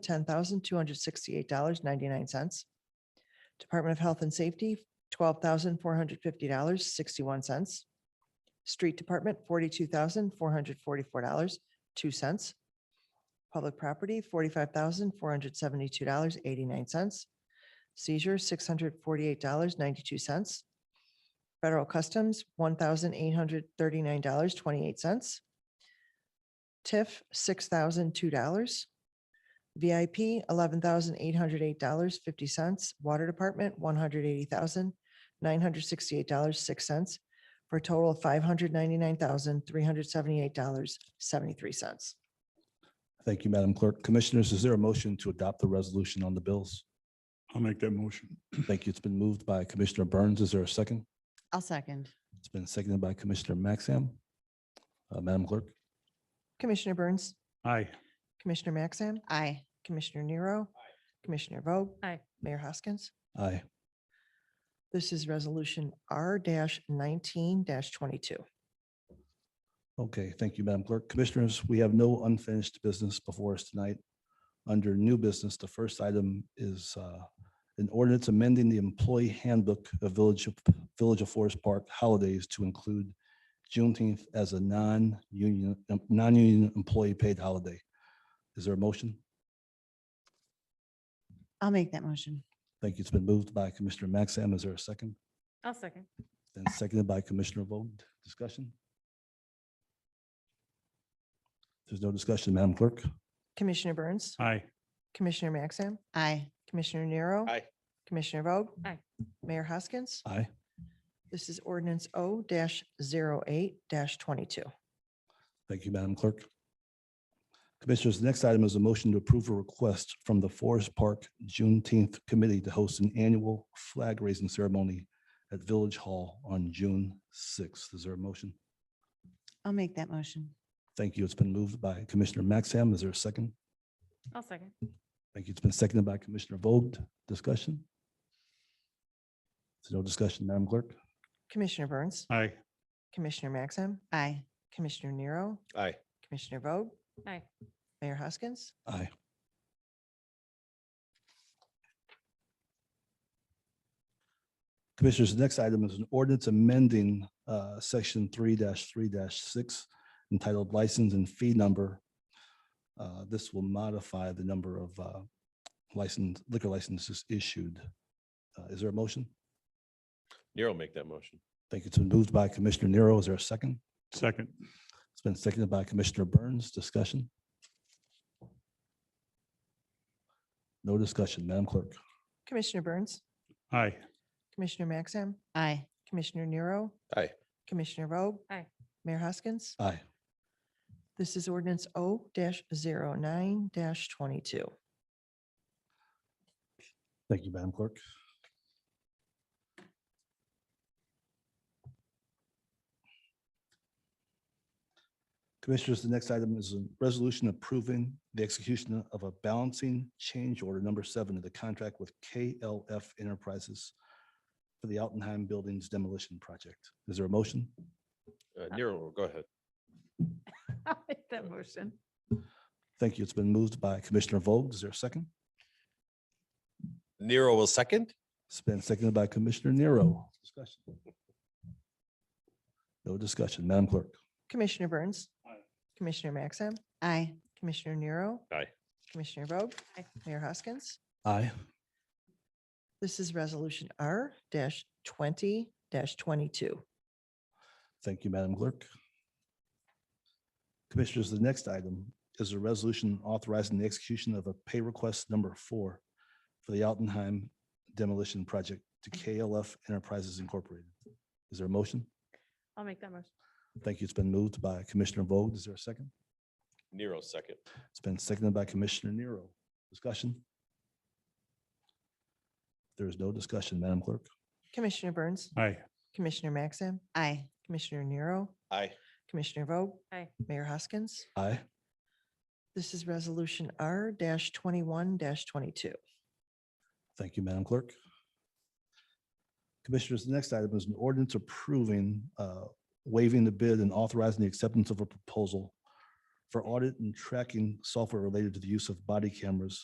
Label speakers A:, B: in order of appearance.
A: ten thousand two hundred sixty-eight dollars ninety-nine cents. Department of Health and Safety, twelve thousand four hundred fifty dollars sixty-one cents. Street Department, forty-two thousand four hundred forty-four dollars two cents. Public Property, forty-five thousand four hundred seventy-two dollars eighty-nine cents. Seizure, six hundred forty-eight dollars ninety-two cents. Federal Customs, one thousand eight hundred thirty-nine dollars twenty-eight cents. TIF, six thousand two dollars. VIP, eleven thousand eight hundred eight dollars fifty cents. Water Department, one hundred eighty thousand nine hundred sixty-eight dollars six cents, for a total of five hundred ninety-nine thousand three hundred seventy-eight dollars seventy-three cents.
B: Thank you, Madam Clerk. Commissioners, is there a motion to adopt the resolution on the bills?
C: I'll make that motion.
B: Thank you. It's been moved by Commissioner Burns. Is there a second?
D: I'll second.
B: It's been seconded by Commissioner Maxam. Uh, Madam Clerk?
A: Commissioner Burns,
C: Aye.
A: Commissioner Maxam,
D: Aye.
A: Commissioner Nero, Commissioner Vogt.
E: Aye.
A: Mayor Hoskins.
B: Aye.
A: This is Resolution R nineteen twenty-two.
B: Okay, thank you, Madam Clerk. Commissioners, we have no unfinished business before us tonight. Under new business, the first item is uh, an ordinance amending the employee handbook of Village of, Village of Forest Park holidays to include Juneteenth as a non-union, um, non-union employee paid holiday. Is there a motion?
D: I'll make that motion.
B: Thank you. It's been moved by Commissioner Maxam. Is there a second?
E: I'll second.
B: Then seconded by Commissioner Vogt. Discussion? There's no discussion, Madam Clerk.
A: Commissioner Burns,
C: Aye.
A: Commissioner Maxam,
D: Aye.
A: Commissioner Nero.
C: Aye.
A: Commissioner Vogt.
E: Aye.
A: Mayor Hoskins.
B: Aye.
A: This is ordinance O 8 twenty-two.
B: Thank you, Madam Clerk. Commissioners, the next item is a motion to approve a request from the Forest Park Juneteenth Committee to host an annual flag raising ceremony at Village Hall on June sixth. Is there a motion?
D: I'll make that motion.
B: Thank you. It's been moved by Commissioner Maxham. Is there a second?
E: I'll second.
B: Thank you. It's been seconded by Commissioner Vogt. Discussion? There's no discussion, Madam Clerk?
A: Commissioner Burns,
C: Aye.
A: Commissioner Maxim,
D: Aye.
A: Commissioner Nero,
C: Aye.
A: Commissioner Vogt,
E: Aye.
A: Mayor Hoskins.
B: Aye. Commissioners, the next item is an ordinance amending uh, section three three six entitled License and Fee Number. Uh, This will modify the number of uh, license, liquor licenses issued. Uh, Is there a motion?
F: Nero make that motion.
B: Thank you. It's been moved by Commissioner Nero. Is there a second?
C: Second.
B: It's been seconded by Commissioner Burns. Discussion? No discussion, Madam Clerk.
A: Commissioner Burns,
C: Aye.
A: Commissioner Maxim,
D: Aye.
A: Commissioner Nero,
F: Aye.
A: Commissioner Vogt.
E: Aye.
A: Mayor Hoskins.
B: Aye.
A: This is ordinance O 9 twenty-two.
B: Thank you, Madam Clerk. Commissioners, the next item is a resolution approving the execution of a balancing change order number seven of the contract with KLF Enterprises for the Altenheim Buildings demolition project. Is there a motion?
F: Uh, Nero, go ahead.
E: I'll make that motion.
B: Thank you. It's been moved by Commissioner Vogt. Is there a second?
F: Nero will second.
B: It's been seconded by Commissioner Nero. Discussion. No discussion, Madam Clerk.
A: Commissioner Burns, Commissioner Maxim,
D: Aye.
A: Commissioner Nero.
F: Aye.
A: Commissioner Vogt.
E: Aye.
A: Mayor Hoskins.
B: Aye.
A: This is resolution R twenty twenty-two.
B: Thank you, Madam Clerk. Commissioners, the next item is a resolution authorizing the execution of a pay request number four for the Altenheim demolition project to KLF Enterprises Incorporated. Is there a motion?
E: I'll make that motion.
B: Thank you. It's been moved by Commissioner Vogt. Is there a second?
F: Nero second.
B: It's been seconded by Commissioner Nero. Discussion? There is no discussion, Madam Clerk.
A: Commissioner Burns,
C: Aye.
A: Commissioner Maxim,
D: Aye.
A: Commissioner Nero,
F: Aye.
A: Commissioner Vogt.
E: Aye.
A: Mayor Hoskins.
B: Aye.
A: This is resolution R twenty-one twenty-two.
B: Thank you, Madam Clerk. Commissioners, the next item is an ordinance approving, uh, waiving the bid and authorizing the acceptance of a proposal for audit and tracking software related to the use of body cameras